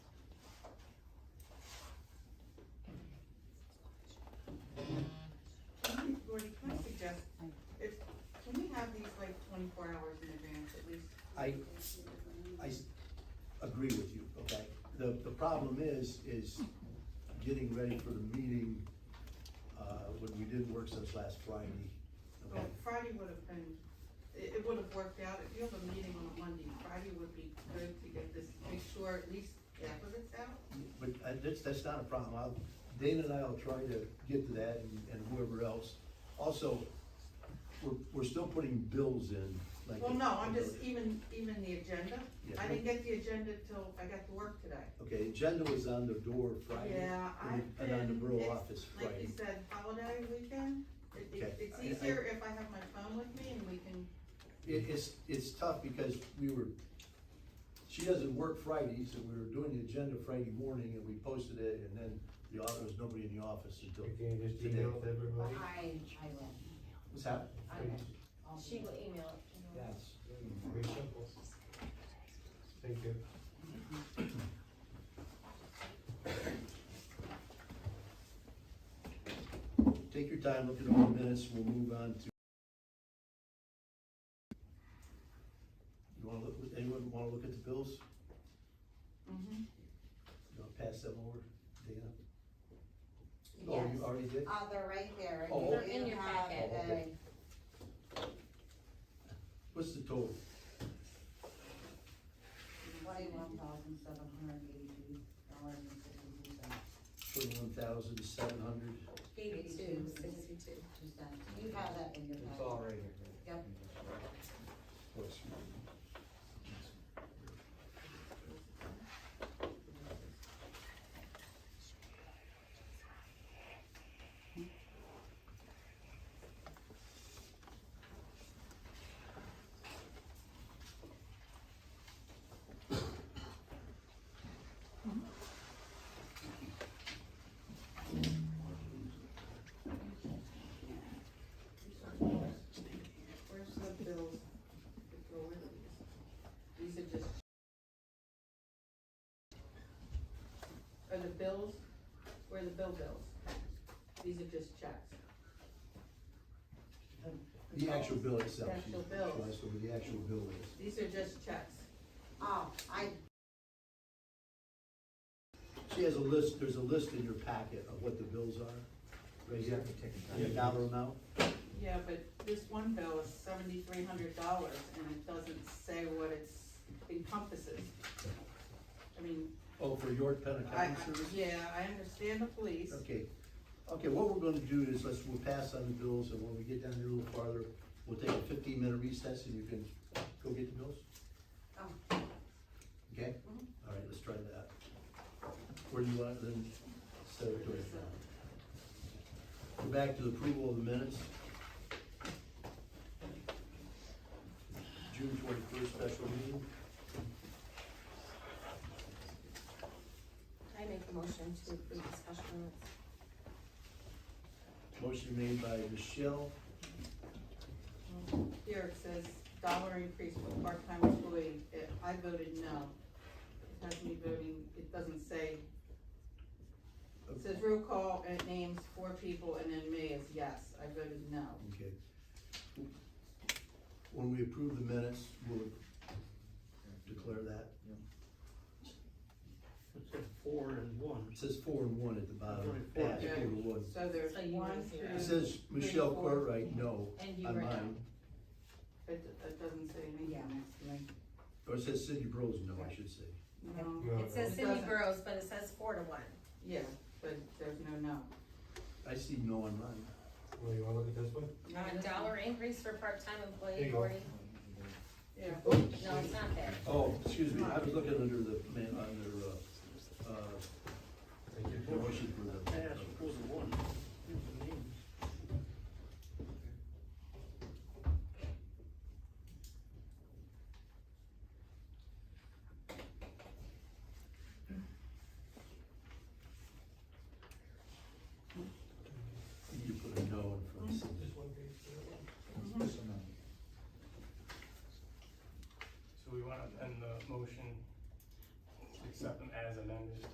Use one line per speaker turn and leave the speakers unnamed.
the, the problem is, is getting ready for the meeting, uh, when we did work since last Friday.
Well, Friday would have been, it, it would have worked out, if you have a meeting on a Monday, Friday would be good to get this, make sure at least half of it's out.
But uh, that's, that's not a problem, I'll, Dana and I will try to get to that and- and whoever else. Also, we're, we're still putting bills in, like.
Well, no, I'm just, even, even the agenda, I didn't get the agenda till I got to work today.
Okay, agenda was on the door Friday.
Yeah,
and-
I've
And on the
been-
borough
it's-
office
Like
Friday.
you said, holiday weekend, it, it,
Okay,
it's
I- I-
easier if I have my phone with me and we can,
It, it's, it's tough because we were, she doesn't work Fridays, and we were doing the agenda Friday morning, and we posted it, and then the, au- there was nobody in the office until.
Can you just
today.
email it to everybody?
I, I will,
What's happening?
I will. I'll
She
be-
will email it to you.
Yes. Very simple. Thank you.
Take your time, look at all the minutes, we'll move on to. You wanna look, anyone wanna look at the bills?
Mm-hmm.
You wanna pass them over, Dana? Oh,
Yes.
you already did?
Uh, they're right there. and
Oh,
you
okay.
They're in your
have
packet.
a-
What's the total?
Twenty-one thousand seven hundred eighty-two dollars and fifty-two cents.
Twenty-one thousand, seven hundred?
Eighty-two, sixty-two.
Two cents. You have that in your packet.
It's all right here.
Yep.
where's the bills that go with it? These are just. Are the bills, where are the bill bills? These are just checks.
The actual bill itself.
Oh. The actual bill.
She- She asked what the actual bill is.
These are just checks.
Oh, I,
She has a list, there's a list in your packet of what the bills are, right here, and the dollar amount.
Yeah, but this one bill is seventy-three hundred dollars and it doesn't say what it's encompasses. I mean,
Oh, for York Penn
I,
Accounting Service?
yeah, I understand the police.
Okay, okay, what we're gonna do is, let's, we'll pass on the bills, and when we get down here a little farther, we'll take a fifteen-minute recess, and you can go get the bills,
oh,
okay? All right, let's try that. Where do you want, it then, set it to it. Go back to the approval of the minutes. June twenty-first special meeting.
I make the motion to approve the special minutes.
Motion made by Michelle,
Here it says dollar increase for part-time employee. It- I voted no. It has me voting, it doesn't say. It says roll call and it names four people and then me is yes. I voted no.
okay. When we approve the minutes, we'll declare that.
Four and one.
It says four and one at the bottom.
Four.
Pass, four to one.
So there's
So you
one,
were
two.
zero.
It says Michelle Cartwright, no,
And you
on
were
mine.
It, it doesn't say anything.
yeah, that's right.
Or Oh, it says Cindy Bros, no, I should say.
No,
No.
It says
It
Cindy
doesn't.
Burrows, but it says four to one.
yeah, but there's no no.
I see no on mine.
Well, you wanna look at this one?
A dollar increase for part-time
There
employee,
you go.
Gordy.
Yeah,
No, it's not there.
Oh, excuse me, I was looking under the, man, under, uh, uh,
Thank
the
you.
motion for the.
Pass, four to one. Here's the names.
You put a no in front of Cindy.
Just one page.
So we want to amend the motion to accept them as amended.